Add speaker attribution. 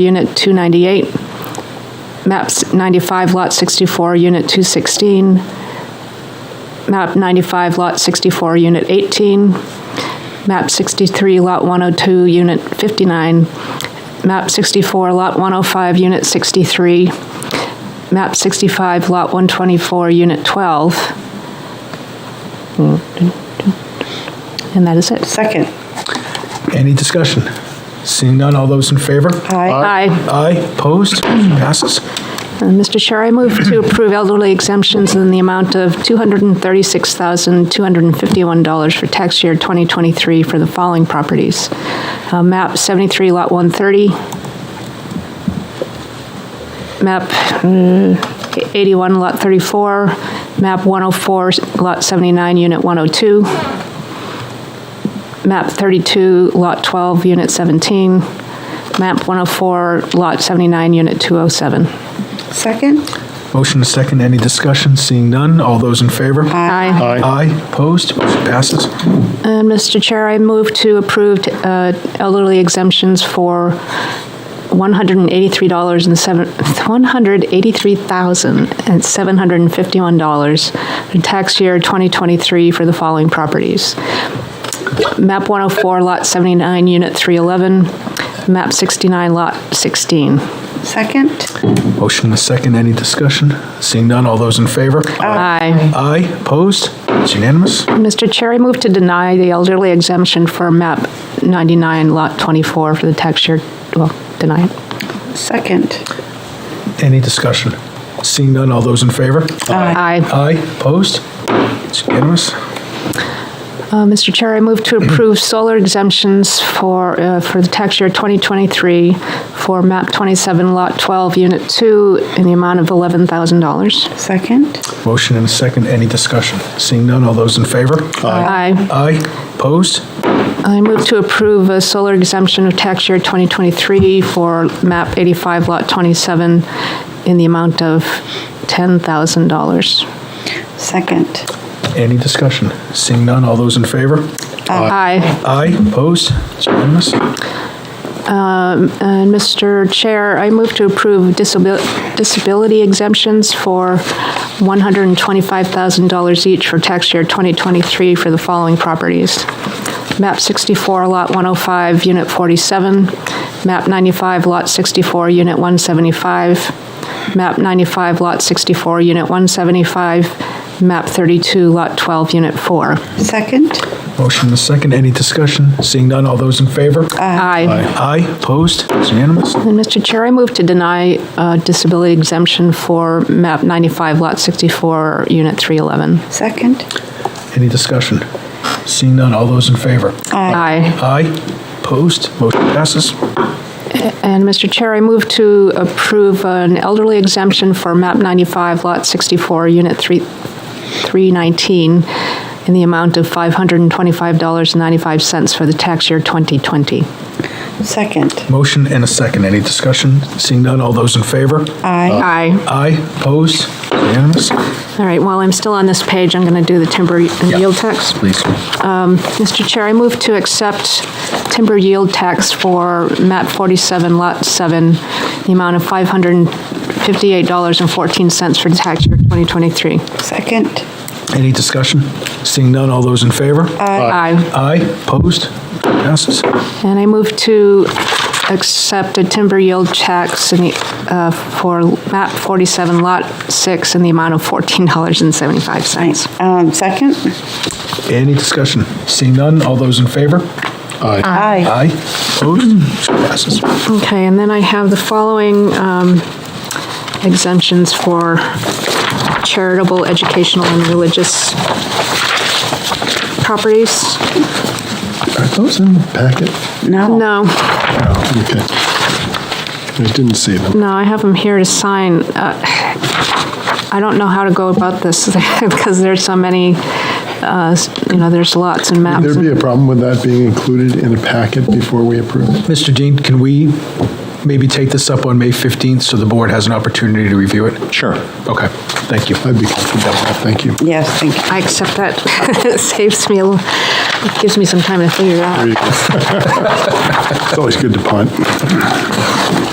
Speaker 1: Unit 298, MAP 95, Lot 64, Unit 216, MAP 95, Lot 64, Unit 18, MAP 63, Lot 102, Unit 59, MAP 64, Lot 105, Unit 63, MAP 65, Lot 124, Unit 12. And that is it.
Speaker 2: Second.
Speaker 3: Any discussion? Seeing none, all those in favor?
Speaker 1: Aye. Aye.
Speaker 3: Aye, opposed, Motion passes.
Speaker 1: And Mr. Uh, Chair, I move to approve elderly exemptions in the amount of $236,251 for tax year 2023 for the following properties. Uh, MAP 73, Lot 130. MAP uh, 81, Lot 34. MAP 104, Lot 79, Unit 102. MAP 32, Lot 12, Unit 17. MAP 104, Lot 79, Unit 207.
Speaker 2: Second?
Speaker 3: Motion is second, any discussion? Seeing none, all those in favor?
Speaker 1: Aye.
Speaker 3: Aye, opposed, motion passes.
Speaker 1: And Mr. Uh, Chair, I move to approve uh, elderly exemptions for $183 and seven, $183,751 for tax year 2023 for the following properties. MAP 104, Lot 79, Unit 311, MAP 69, Lot 16.
Speaker 2: Second?
Speaker 3: Motion is second, any discussion? Seeing none, all those in favor?
Speaker 1: Aye.
Speaker 3: Aye, opposed, it's unanimous.
Speaker 1: Mr. Chair, I move to deny the elderly exemption for MAP 99, Lot 24 for the tax year, well, deny it.
Speaker 2: Second.
Speaker 3: Any discussion? Seeing none, all those in favor?
Speaker 1: Aye.
Speaker 3: Aye, opposed, it's unanimous.
Speaker 1: Uh, Mr. Chair, I move to approve solar exemptions for, uh, for the tax year 2023 for MAP 27, Lot 12, Unit 2, in the amount of $11,000.
Speaker 2: Second?
Speaker 3: Motion and a second, any discussion? Seeing none, all those in favor?
Speaker 1: Aye.
Speaker 3: Aye, opposed?
Speaker 1: I move to approve a solar exemption of tax year 2023 for MAP 85, Lot 27, in the amount of $10,000.
Speaker 2: Second.
Speaker 3: Any discussion? Seeing none, all those in favor?
Speaker 1: Aye.
Speaker 3: Aye, opposed? It's unanimous.
Speaker 1: And Mr. Chair, I move to approve disabil- disability exemptions for $125,000 each for tax year 2023 for the following properties. MAP 64, Lot 105, Unit 47. MAP 95, Lot 64, Unit 175. MAP 95, Lot 64, Unit 175. MAP 32, Lot 12, Unit 4.
Speaker 2: Second?
Speaker 3: Motion and a second, any discussion? Seeing none, all those in favor?
Speaker 1: Aye.
Speaker 3: Aye, opposed? It's unanimous.
Speaker 1: And Mr. Chair, I move to deny uh, disability exemption for MAP 95, Lot 64, Unit 311.
Speaker 2: Second?
Speaker 3: Any discussion? Seeing none, all those in favor?
Speaker 1: Aye.
Speaker 3: Aye, opposed? Motion passes.
Speaker 1: And Mr. Chair, I move to approve an elderly exemption for MAP 95, Lot 64, Unit 3 319, in the amount of $525.95 for the tax year 2020.
Speaker 2: Second?
Speaker 3: Motion and a second, any discussion? Seeing none, all those in favor?
Speaker 2: Aye.
Speaker 1: Aye.
Speaker 3: Aye, opposed? It's Unanimous.
Speaker 1: All right, while I'm still on this page, I'm going to do the timber and
Speaker 3: Yeah.
Speaker 1: yield tax.
Speaker 3: Please.
Speaker 1: Mr. Chair, I move to accept timber yield tax for MAP 47, Lot 7, the amount of $558.14 for the tax year 2023.
Speaker 2: Second?
Speaker 3: Any discussion? Seeing none, all those in favor?
Speaker 1: Aye.
Speaker 3: Aye, opposed? Passes.
Speaker 1: And I move to accept a timber yield tax in the, uh, for MAP 47, Lot 6, in the amount of $14.75.
Speaker 2: Um, second?
Speaker 3: Any discussion? Seeing none, all those in favor?
Speaker 2: Aye.
Speaker 3: Aye. Opposed? Motion passes.
Speaker 1: Okay, and then I have the following um, exemptions for charitable, educational, and religious properties.
Speaker 4: Are those in the packet?
Speaker 2: No.
Speaker 1: No,
Speaker 4: Okay. I didn't see them.
Speaker 1: no, I have them here to sign. Uh, I don't know how to go about this because there's so many, uh, you know, there's lots and maps.
Speaker 4: There'd be a problem with that being included in a packet before we approve it?
Speaker 3: Mr. Dean, can we maybe take this up on May 15th so the board has an opportunity to review it?
Speaker 4: Sure.
Speaker 3: Okay, thank you.
Speaker 4: I'd be comfortable with that, thank you.
Speaker 2: Yes, thank you.
Speaker 1: I accept that. It saves me, a l- it gives me some time to figure it out.
Speaker 4: It's always good to punt.